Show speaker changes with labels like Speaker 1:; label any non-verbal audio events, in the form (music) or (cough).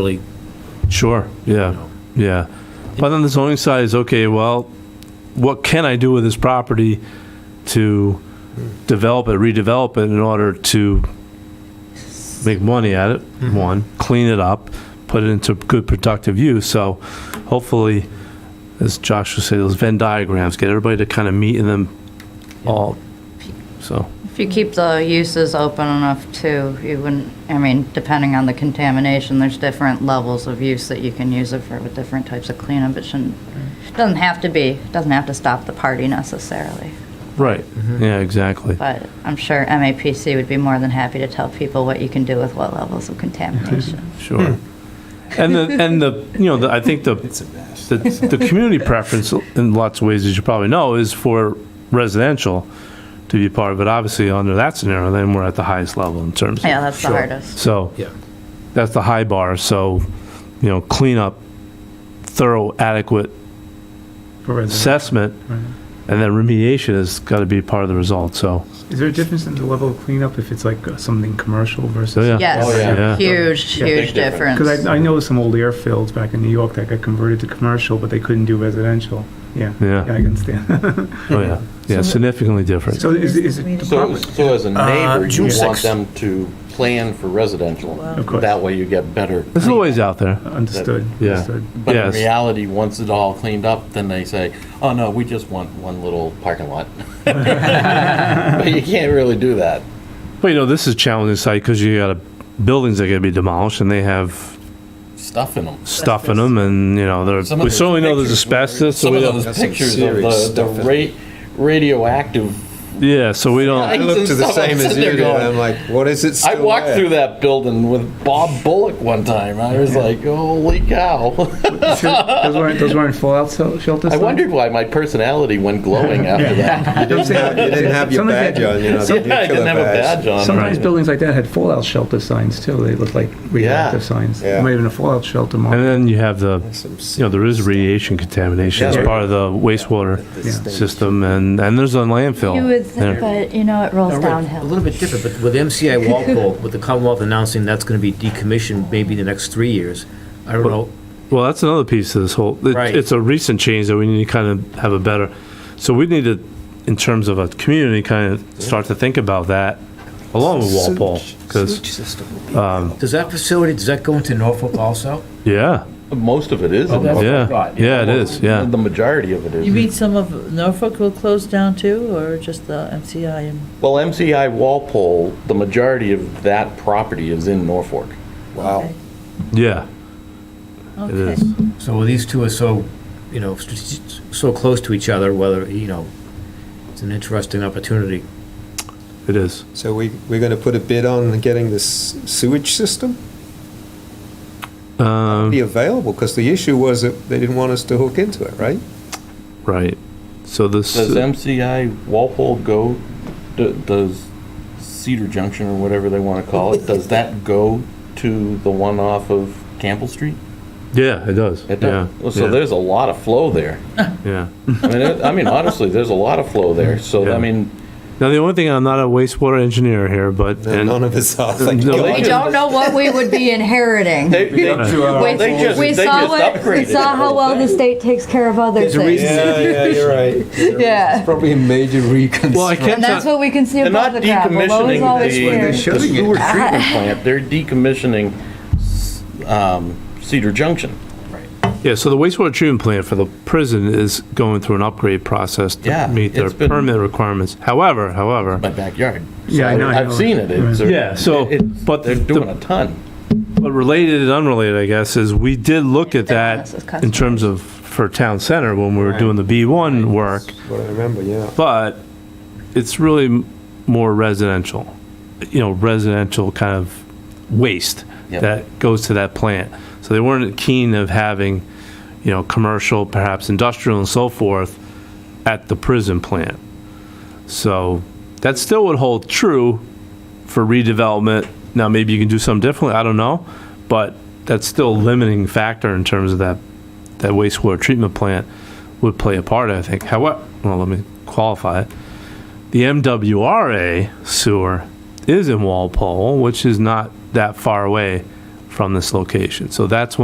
Speaker 1: really,
Speaker 2: Sure, yeah, yeah. But then the zoning side is, okay, well, what can I do with this property to develop it, redevelop it in order to make money at it, one, clean it up, put it into good productive use, so hopefully, as Josh would say, those Venn diagrams, get everybody to kind of meet in them all, so,
Speaker 3: If you keep the uses open enough too, you wouldn't, I mean, depending on the contamination, there's different levels of use that you can use it for with different types of cleanup. It shouldn't, doesn't have to be, doesn't have to stop the party necessarily.
Speaker 2: right, yeah, exactly.
Speaker 3: But I'm sure MAPC would be more than happy to tell people what you can do with what levels of contamination.
Speaker 2: Sure. And the, and the, you know, the- I think the, the, the community preference in lots of ways, as you probably know, is for residential to be part of it. Obviously, under that scenario, then we're at the highest level in terms
Speaker 3: Yeah,
Speaker 2: of,
Speaker 3: that's the
Speaker 1: Sure.
Speaker 3: hardest.
Speaker 2: so,
Speaker 1: yeah.
Speaker 2: that's the high bar, so, you know, clean up, thorough, adequate
Speaker 4: For residents.
Speaker 2: assessment, and then remediation has got to be part of the result, so,
Speaker 4: Is there a difference in the level of cleanup if it's like uh, something commercial versus?
Speaker 2: Yeah.
Speaker 5: Oh,
Speaker 2: yeah.
Speaker 3: Yes, huge,
Speaker 4: Yeah.
Speaker 3: huge difference.
Speaker 4: Because I, I know some old airfields back in New York that got converted to commercial, but they couldn't do residential. Yeah.
Speaker 2: Yeah.
Speaker 4: I can stand. (laughs)
Speaker 2: oh, yeah. Yeah, significantly different.
Speaker 4: So is, is it the
Speaker 5: So,
Speaker 4: property?
Speaker 5: so as a neighbor, you
Speaker 6: June
Speaker 5: want
Speaker 6: 6th.
Speaker 5: them to plan for residential.
Speaker 4: Of course.
Speaker 5: That way you get better.
Speaker 2: There's always out there,
Speaker 4: Understood,
Speaker 2: Yeah.
Speaker 4: understood.
Speaker 5: But in
Speaker 2: Yes.
Speaker 5: reality, once it all cleaned up, then they say, oh, no, we just want one little parking lot. (laughs) But you can't really do that.
Speaker 2: but you know, this is a challenging site, because you got buildings that are going to be demolished, and they have
Speaker 5: Stuff in them.
Speaker 2: stuff in them and, you know, there, we certainly know there's asbestos, so
Speaker 5: Some
Speaker 2: we
Speaker 5: of
Speaker 2: don't,
Speaker 5: those pictures of
Speaker 6: serious stuff
Speaker 5: the,
Speaker 6: in
Speaker 5: the ra- radioactive.
Speaker 2: yeah, so we
Speaker 5: I
Speaker 6: I
Speaker 2: don't,
Speaker 5: Things
Speaker 6: look
Speaker 5: and
Speaker 6: to the
Speaker 5: stuff, I'm
Speaker 6: same as
Speaker 5: sitting
Speaker 6: you
Speaker 5: there
Speaker 6: do, and
Speaker 5: going-
Speaker 6: I'm like, what is it
Speaker 5: I
Speaker 6: still
Speaker 5: walked
Speaker 6: there?
Speaker 5: through that building with Bob Bullock one time. I was like, holy cow. (laughs)
Speaker 4: So Those weren't, those weren't fallout shel- shelters?
Speaker 5: I
Speaker 4: though?
Speaker 5: wondered why my personality went glowing after that.
Speaker 6: You didn't have, you didn't have your
Speaker 4: Sometimes
Speaker 6: badge
Speaker 4: they-
Speaker 6: on, you know, the
Speaker 5: Yeah, I
Speaker 6: nuclear
Speaker 5: didn't have a
Speaker 6: badge.
Speaker 5: badge on.
Speaker 4: Sometimes
Speaker 5: right?
Speaker 4: buildings like that had fallout shelter signs too. They looked like reactive signs.
Speaker 6: Yeah.
Speaker 4: Might have been a fallout shelter
Speaker 2: and
Speaker 4: mark.
Speaker 2: then you have the,
Speaker 6: Some
Speaker 2: you know, there is radiation contamination as
Speaker 6: Yeah.
Speaker 2: part of the wastewater system and, and there's a landfill.
Speaker 3: You would
Speaker 2: there.
Speaker 3: think, but you know, it rolls
Speaker 7: A
Speaker 3: downhill.
Speaker 7: little bit different, but with MCI Walpole, with the Commonwealth announcing that's going to be decommissioned maybe the next three years, I don't know,
Speaker 2: Well, that's another piece of this whole, it-
Speaker 7: Right.
Speaker 2: it's a recent change that we need to kind of have a better, so we need to, in terms of a community, kind of start to think about that along with Walpole, because,
Speaker 7: Um, does that facility, does that go into Norfolk also?
Speaker 2: yeah,
Speaker 5: Most of it is.
Speaker 7: Oh,
Speaker 5: in
Speaker 7: that's
Speaker 5: Norfolk.
Speaker 7: what I
Speaker 2: yeah,
Speaker 7: thought.
Speaker 2: yeah, it is, yeah.
Speaker 5: The majority of it
Speaker 8: You mean
Speaker 5: is.
Speaker 8: some of Norfolk will close down too, or just the MCI and?
Speaker 5: Well, MCI Walpole, the majority of that property is in Norfolk.
Speaker 6: Wow.
Speaker 8: Okay.
Speaker 2: Yeah, it
Speaker 8: Okay.
Speaker 2: is.
Speaker 7: So these two are so, you know, strate- so close to each other, whether, you know, it's an interesting opportunity.
Speaker 2: It is.
Speaker 6: So we, we're gonna put a bid on getting this sewage system?
Speaker 2: Um,
Speaker 6: Be available, because the issue was that they didn't want us to hook into it, right?
Speaker 2: right. So this.
Speaker 5: Does MCI Walpole go, d- does Cedar Junction or whatever they want to call it, does that go to the one off of Campbell Street?
Speaker 2: Yeah, it does.
Speaker 5: It does.
Speaker 2: Yeah,
Speaker 5: Well, So
Speaker 2: yeah,
Speaker 5: there's a lot of flow there.
Speaker 2: Yeah.
Speaker 5: I mean, it- I mean, honestly, there's a lot of flow there. So,
Speaker 2: Yeah.
Speaker 5: I mean,
Speaker 2: Now, the only thing, I'm not a wastewater engineer here, but. and-
Speaker 6: None of us are. thank
Speaker 2: No.
Speaker 6: God.
Speaker 3: We don't know what we would be inheriting.
Speaker 5: they, they,
Speaker 3: We-
Speaker 5: they just,
Speaker 3: we
Speaker 5: they just
Speaker 3: saw what,
Speaker 5: upgraded.
Speaker 3: we saw how well the state takes care of other
Speaker 7: There's a
Speaker 3: things.
Speaker 7: reason-
Speaker 6: Yeah, yeah, you're
Speaker 7: (laughs)
Speaker 6: right.
Speaker 3: Yeah.
Speaker 6: Probably a
Speaker 2: (laughs)
Speaker 6: major
Speaker 2: Well, I
Speaker 6: reconstruction.
Speaker 2: can't.
Speaker 3: And that's
Speaker 2: tell-
Speaker 3: what we can see
Speaker 5: They're
Speaker 3: above
Speaker 5: not
Speaker 3: the crap. Below is always
Speaker 5: decommissioning
Speaker 3: here.
Speaker 5: the- the sewer treatment
Speaker 3: Ah.
Speaker 5: plant, they're decommissioning s- um, Cedar Junction.
Speaker 2: Yeah, so the wastewater treatment plant for the prison is going through an upgrade process
Speaker 5: Yeah,
Speaker 2: to meet their
Speaker 5: it's been-
Speaker 2: permit requirements. However, however.
Speaker 5: My backyard.
Speaker 4: Yeah, I know, I
Speaker 5: I've
Speaker 4: know.
Speaker 5: seen it. It's-
Speaker 2: Yeah, so,
Speaker 5: it-
Speaker 2: but
Speaker 5: They're
Speaker 2: the-
Speaker 5: doing a ton.
Speaker 2: But related and unrelated, I guess, is we did look at
Speaker 3: This is
Speaker 2: that in
Speaker 3: customers.
Speaker 2: terms of, for town center when we were doing the B1 work.
Speaker 6: What I remember, yeah.
Speaker 2: but it's really m- more residential, you know, residential kind of waste
Speaker 5: Yep.
Speaker 2: that goes to that plant. So they weren't keen of having, you know, commercial, perhaps industrial and so forth at the prison plant. So that still would hold true for redevelopment. Now, maybe you can do something differently, I don't know, but that's still a limiting factor in terms of that, that wastewater treatment plant would play a part, I think. However, well, let me qualify it. The MWRA sewer is in Walpole, which is not that far away from this location. So that's